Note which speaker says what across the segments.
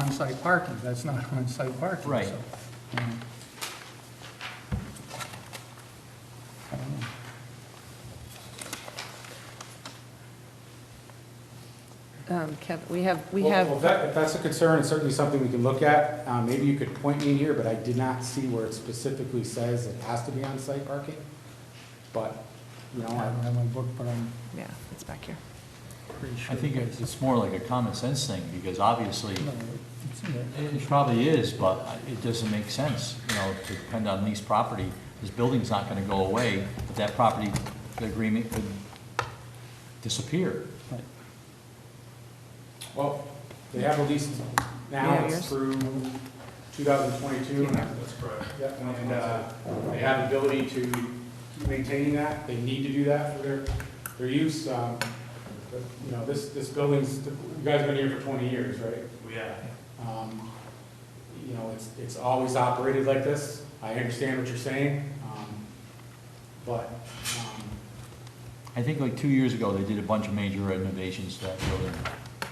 Speaker 1: on-site parking, that's not on-site parking.
Speaker 2: Right.
Speaker 1: so, um, I don't know.
Speaker 3: Um, Kevin, we have, we
Speaker 4: Well,
Speaker 3: have.
Speaker 4: Well, that, if that's a concern, it's certainly something we can look at. Uh, maybe you could point me in here, but I did not see where it specifically says it has to be on-site parking. But, you know,
Speaker 1: I
Speaker 4: I,
Speaker 1: don't have my book, but I'm
Speaker 3: Yeah, it's back here.
Speaker 1: pretty sure.
Speaker 2: I think it's it's more like a common sense thing, because obviously,
Speaker 1: No, it's in there.
Speaker 2: it it probably is, but it doesn't make sense, you know, to depend on leased property. This building's not gonna go away, but that property, the agreement could disappear.
Speaker 1: Right.
Speaker 4: well, they have a lease
Speaker 3: Yeah,
Speaker 4: now, it's
Speaker 3: yours.
Speaker 4: through two thousand twenty-two.
Speaker 5: That's correct.
Speaker 4: Yep, and, uh, they have the ability to keep maintaining that, they need to do that for their, their use. Um, but, You know, this, this building's, you guys have been here for twenty years, right?
Speaker 5: We have.
Speaker 4: Um, You know, it's, it's always operated like this. I understand what you're saying, um, but, um,
Speaker 2: I think like two years ago, they did a bunch of major renovations to that building,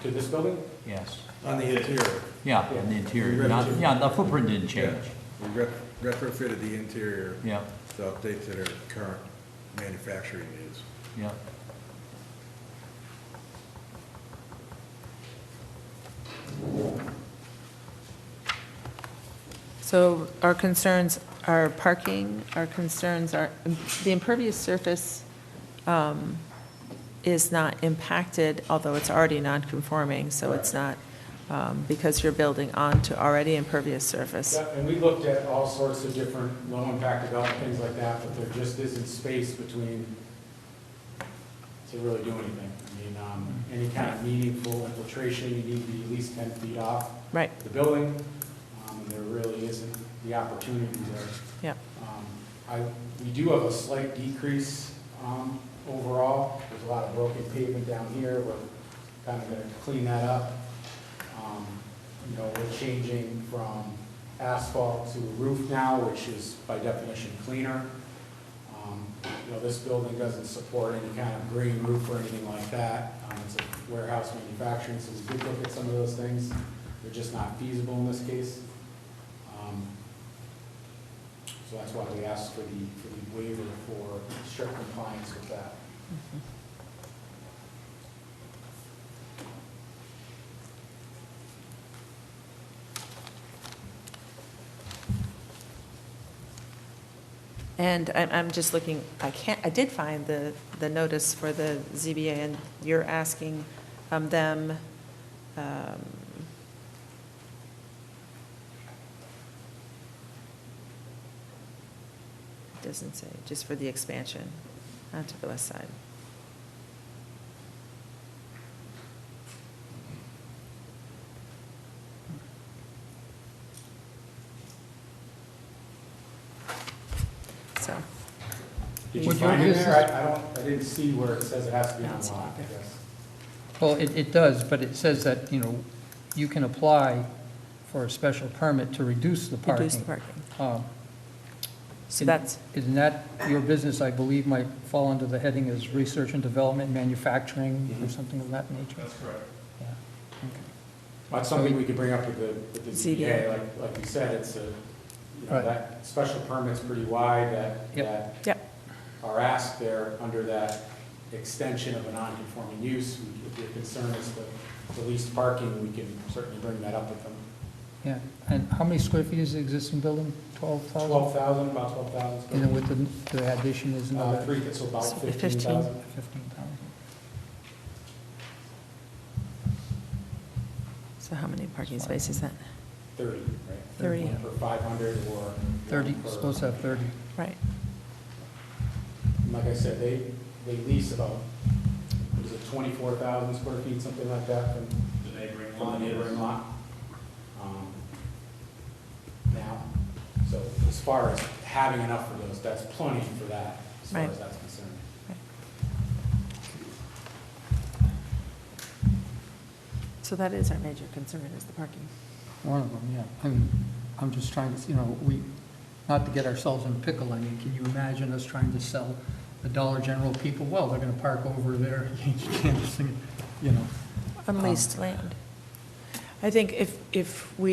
Speaker 4: to this building,
Speaker 2: yes.
Speaker 6: On the interior,
Speaker 2: Yeah, and the interior,
Speaker 6: Yeah.
Speaker 2: not, yeah, the footprint didn't change,
Speaker 6: we re- retrofitted the interior
Speaker 2: yeah,
Speaker 6: to update to their current manufacturing needs.
Speaker 2: yeah.
Speaker 3: So our concerns are parking, our concerns are, the impervious surface um, is not impacted, although it's already non-conforming, so it's not, um, because you're building onto already impervious surface.
Speaker 4: Yeah, and we looked at all sorts of different low-impact development, things like that, but there just isn't space between to really do anything. I mean, um, any kind of meaningful infiltration, you need to be at least ten feet off
Speaker 3: Right,
Speaker 4: the building. Um, and There really isn't the opportunity there.
Speaker 3: yeah.
Speaker 4: Um, I, we do have a slight decrease um, overall. There's a lot of broken pavement down here. We're kind of going to clean that up. Um, You know, we're changing from asphalt to roof now, which is by definition cleaner. Um, You know, this building doesn't support any kind of green roof or anything like that. Um, It's a warehouse manufacturing, so we did look at some of those things. They're just not feasible in this case. Um, so that's why we asked for the, for the waiver for strict compliance with that.
Speaker 3: And I'm, I'm just looking, I can't, I did find the, the notice for the ZBA, and you're asking um, them, um, it doesn't say, just for the expansion onto the west side. So,
Speaker 4: Did you
Speaker 1: Would you-
Speaker 4: find it
Speaker 1: this
Speaker 4: there? I, I don't, I didn't see where it says it has to be on lot, I guess.
Speaker 1: Well, it, it does, but it says that, you know, you can apply for a special permit to reduce the parking.
Speaker 3: reduce the parking.
Speaker 1: Um,
Speaker 3: So that's,
Speaker 1: Isn't that, your business, I believe, might fall under the heading as research and development, manufacturing, or something of that nature?
Speaker 5: That's correct.
Speaker 1: Yeah.
Speaker 4: That's something we could bring up with the, with the
Speaker 3: ZBA.
Speaker 4: ZBA, like, like you said, it's a, you know,
Speaker 1: Right.
Speaker 4: that special permit's pretty wide, that,
Speaker 1: Yep.
Speaker 4: that
Speaker 3: yep,
Speaker 4: are asked there under that extension of a non-conforming use. If your concern is the, the least parking, we can certainly bring that up with them.
Speaker 1: Yeah, and how many square feet is the existing building? 12,000?
Speaker 4: Twelve thousand, about twelve thousand.
Speaker 1: And then with the, the addition is
Speaker 4: Uh,
Speaker 1: another
Speaker 4: three, it's about
Speaker 3: So fifteen.
Speaker 4: fifteen thousand.
Speaker 1: 15,000.
Speaker 3: so how many parking spaces then?
Speaker 4: 30, right?
Speaker 3: 30.
Speaker 4: One per 500 or. one
Speaker 1: 30,
Speaker 4: per-
Speaker 1: supposed to have 30.
Speaker 3: Right,
Speaker 4: and Like I said, they, they lease about, what is it, 24,000 square feet, something like that from
Speaker 5: The neighboring
Speaker 4: from the
Speaker 5: lot is-
Speaker 4: neighboring lot. um, Now, so as far as having enough for those, that's plenty for that, as far
Speaker 3: Right.
Speaker 4: as that's concerned.
Speaker 3: so that is our major concern, is the parking.
Speaker 1: One of them, yeah. And I'm just trying to, you know, we, not to get ourselves in a pickle, I mean, can you imagine us trying to sell the Dollar General people, well, they're gonna park over there, you can't, just, you know.
Speaker 3: Unleased land. I think if, if we